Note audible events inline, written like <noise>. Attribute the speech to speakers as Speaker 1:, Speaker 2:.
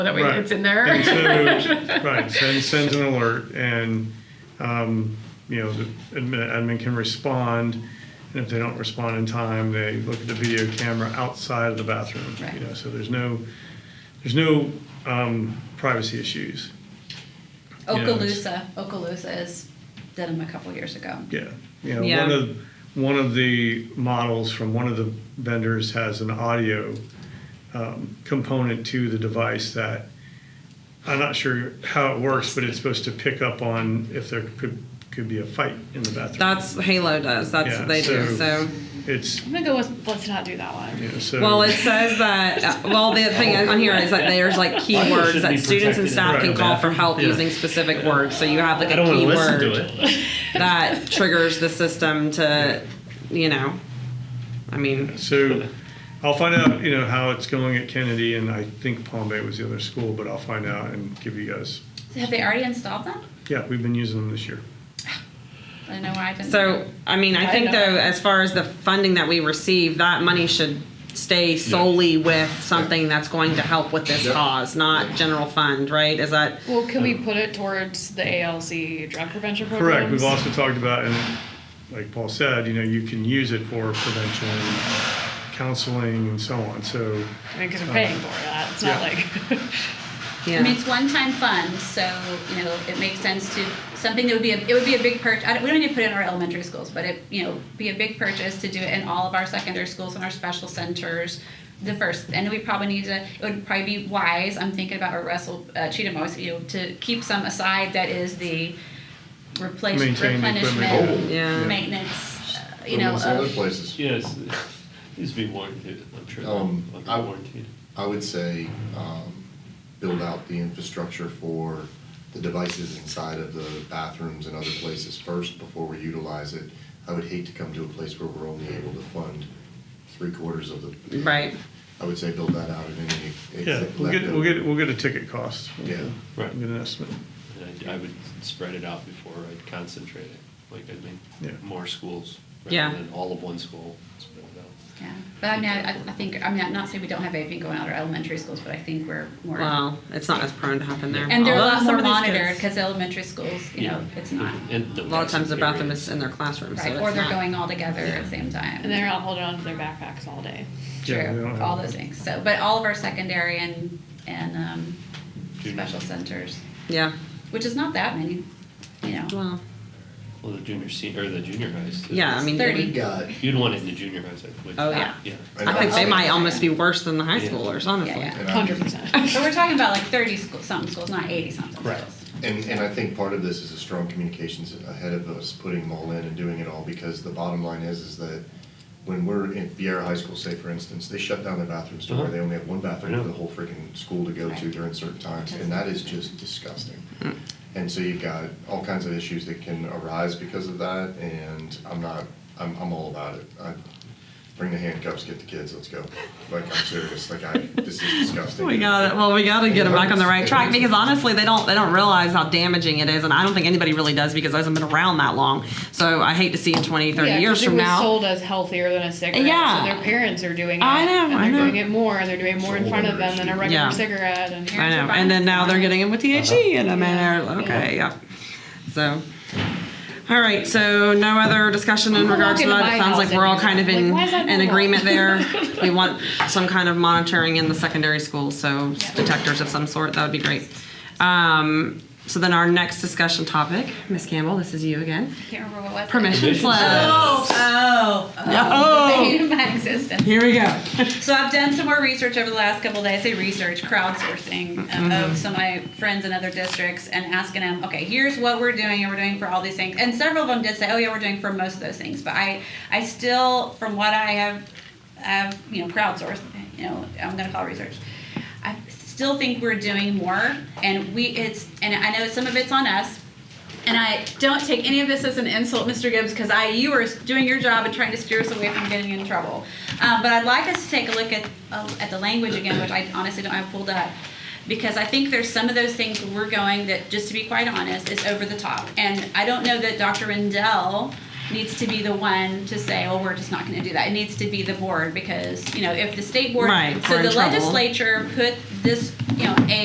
Speaker 1: so that way
Speaker 2: Right.
Speaker 1: it's in there.
Speaker 2: And
Speaker 1: <laughs>
Speaker 2: so, right, send, sends an alert, and, um, you know, the admin, admin can respond, and if they don't respond in time, they look at the video camera outside of the bathroom. you
Speaker 1: Right.
Speaker 2: know, So there's no, there's no um, privacy issues, Yeah, it's-
Speaker 3: Okaloosa, Okaloosa is, did them a couple years ago.
Speaker 2: yeah. You know,
Speaker 4: Yeah.
Speaker 2: one of, one of the models from one of the vendors has an audio um, component to the device that I'm not sure how it works, but it's supposed to pick up on if there could, could be a fight in the bathroom.
Speaker 4: That's Halo does. That's
Speaker 2: Yeah,
Speaker 4: what they do.
Speaker 2: so-
Speaker 4: So
Speaker 2: It's,
Speaker 1: I'm gonna go with let's not do that one.
Speaker 2: you know, so.
Speaker 4: well, it says that. uh, Well, the thing on here is that there's like keywords
Speaker 5: should
Speaker 4: that
Speaker 5: be
Speaker 4: students and
Speaker 5: protected
Speaker 4: staff
Speaker 2: in
Speaker 4: can
Speaker 2: the
Speaker 4: call for
Speaker 5: bathroom.
Speaker 4: help
Speaker 5: Yeah.
Speaker 4: using specific words. So you have like
Speaker 5: I
Speaker 4: a
Speaker 5: don't want to
Speaker 4: keyword
Speaker 5: Oh, listen to it.
Speaker 4: that triggers the system to, you know, I mean,
Speaker 2: So I'll find out, you know, how it's going at Kennedy, and I think Palm Bay was the other school, but I'll find out and give you guys.
Speaker 3: Have they already installed them?
Speaker 2: Yeah, we've been using them this year.
Speaker 3: I don't know why I didn't.
Speaker 4: so I mean, I
Speaker 1: I
Speaker 4: think
Speaker 1: know.
Speaker 4: though, as far as the funding that we receive, that money should stay solely with something that's going to help with this
Speaker 6: Yeah.
Speaker 4: cause, not general fund, right? Is that
Speaker 1: Well, can we put it towards the ALC drug prevention programs?
Speaker 2: Correct. We've also talked about, and like Paul said, you know, you can use it for prevention, counseling, and so on. So,
Speaker 1: I mean, because we're paying for that. It's not like <laughs>
Speaker 4: yeah.
Speaker 3: I mean, it's one-time fund, so, you know, it makes sense to, something that would be, a it would be a big purchase, we don't need to put it in our elementary schools, but it, you know, be a big purchase to do it in all of our secondary schools and our special centers, the first, and we probably need to, it would probably be wise, I'm thinking about what Russell uh, Cheatham always, you know, to keep some aside that is the replace,
Speaker 2: Maintain the equipment.
Speaker 3: replenishment,
Speaker 4: Oh. Yeah.
Speaker 3: maintenance, uh, you
Speaker 6: But
Speaker 3: know,
Speaker 6: what's the other
Speaker 3: of,
Speaker 6: places.
Speaker 5: Yes, needs to be warranted. I'm sure.
Speaker 6: Um,
Speaker 5: they'll be
Speaker 6: I-
Speaker 5: warranted.
Speaker 6: I would say, um, build out the infrastructure for the devices inside of the bathrooms and other places first before we utilize it. I would hate to come to a place where we're only able to fund three quarters of the.
Speaker 4: Right.
Speaker 6: I would say build that out in any.
Speaker 2: yeah, we'll get, we'll get, we'll get a ticket cost.
Speaker 6: Yeah.
Speaker 2: We'll Get an estimate.
Speaker 5: And I, I would spread it out before I'd concentrate it. Like I'd make
Speaker 2: Yeah.
Speaker 5: more schools rather
Speaker 4: Yeah.
Speaker 5: than all of one school. Spread it out.
Speaker 3: yeah. But I mean, I, I I think, I mean, I'm not saying we don't have anything going on at our elementary schools, but I think we're more.
Speaker 4: Well, it's not as prone to happen there.
Speaker 3: And they're a
Speaker 4: Although
Speaker 3: lot
Speaker 4: some
Speaker 3: more
Speaker 4: of these
Speaker 3: monitored
Speaker 4: kids-
Speaker 3: because elementary schools, you know, it's not.
Speaker 5: And
Speaker 4: A
Speaker 5: the
Speaker 4: lot of times the bathroom
Speaker 5: period.
Speaker 4: is in their classroom, so
Speaker 3: Right,
Speaker 4: it's
Speaker 3: or they're
Speaker 4: not-
Speaker 3: going all together at the same time.
Speaker 1: and they're not holding on to their backpacks all day.
Speaker 2: Yeah, they don't
Speaker 3: True,
Speaker 2: have-
Speaker 3: all those things. So, but all of our secondary and, and, um,
Speaker 5: Junior
Speaker 3: special centers,
Speaker 4: Yeah.
Speaker 3: which is not that many, you know.
Speaker 4: Well,
Speaker 5: Well, the junior senior or the junior highs. too.
Speaker 4: yeah. I mean,
Speaker 3: Thirty.
Speaker 6: We got,
Speaker 5: You'd want it in the junior highs, I would.
Speaker 4: Oh, yeah.
Speaker 5: Yeah.
Speaker 4: I think they might almost be worse than the high
Speaker 5: Yeah.
Speaker 4: schoolers, honestly.
Speaker 3: Yeah, yeah.
Speaker 6: and I'm-
Speaker 1: Hundred
Speaker 4: <laughs>
Speaker 1: percent.
Speaker 3: But we're talking about like thirty school, something schools, not eighty something schools.
Speaker 5: Correct.
Speaker 6: And, and I think part of this is a strong communications ahead of us putting them all in and doing it all, because the bottom line is, is that when we're in Vieira High School, say for instance, they shut down their bathrooms to where
Speaker 5: Uh-huh.
Speaker 6: they only have one
Speaker 5: I
Speaker 6: bathroom
Speaker 5: know.
Speaker 6: for the whole freaking school to go to
Speaker 3: Right.
Speaker 6: during certain times, and that is just disgusting.
Speaker 5: Mm.
Speaker 6: And so you've got all kinds of issues that can arise because of that, and I'm not, I'm, I'm all about it. I Bring the handcuffs, get the kids, let's go. Like, I'm serious, like I, this is
Speaker 5: <laughs>
Speaker 6: disgusting.
Speaker 4: We got well, we got to get them back on the right track because honestly, they don't they don't realize how damaging it is, and I don't think anybody really does because it hasn't been around that long. So I hate to see in 20, 30
Speaker 1: yeah, 'cause
Speaker 4: years
Speaker 1: it
Speaker 4: from
Speaker 1: was
Speaker 4: now.
Speaker 1: sold as healthier than a cigarette.
Speaker 4: Yeah.
Speaker 1: so their parents are doing it.
Speaker 4: I know,
Speaker 1: and
Speaker 4: I
Speaker 1: they're
Speaker 4: know.
Speaker 1: doing it more, and they're doing it more in front of them than a regular
Speaker 4: Yeah.
Speaker 1: cigarette. And
Speaker 4: I know, and then now they're getting in with THC, and I mean,
Speaker 1: Yeah.
Speaker 4: they're- okay, yeah. So, all right. So no other discussion in
Speaker 1: I'm
Speaker 4: regards to
Speaker 1: walking to
Speaker 4: that.
Speaker 1: my
Speaker 4: It sounds like
Speaker 1: house
Speaker 4: we're all
Speaker 1: anymore.
Speaker 4: kind of in
Speaker 1: Like, why is that
Speaker 4: an
Speaker 1: not?
Speaker 4: agreement there.
Speaker 1: <laughs>
Speaker 4: we want some kind of monitoring in the secondary schools, so detectors of some sort. That would be great. Um, so then our next discussion topic, Miss Campbell, this is you again.
Speaker 3: Can't remember what was. it.
Speaker 4: Permission
Speaker 5: Permission
Speaker 4: slip.
Speaker 3: Oh, oh, oh. <laughs>
Speaker 4: Oh.
Speaker 3: The pain of my existence.
Speaker 4: Here we go.
Speaker 3: So I've done some more research over the last couple of days. I say research, crowdsourcing uh, of some of my friends in other districts and asking them, okay, here's what we're doing and we're doing for all these things. And several of them did say, oh yeah, we're doing for most of those things. But I, I still, from what I have, have you know, crowdsourced, you know, I'm going to call it research. I still think we're doing more, and we it's and I know some of it's on us, and I don't take any of this as an insult, Mr. Gibbs, because I you are doing your job and trying to steer us away from getting in trouble. Um, but I'd like us to take a look at uh, at the language again, which I honestly don't have pulled up, because I think there's some of those things where we're going that, just to be quite honest, is over the top. And I don't know that Dr. Rendell needs to be the one to say, "Oh, we're just not going to do that." It needs to be the board because you know if the state board,
Speaker 4: Right,
Speaker 3: so
Speaker 4: we're in
Speaker 3: the
Speaker 4: trouble.
Speaker 3: legislature put this, you know, a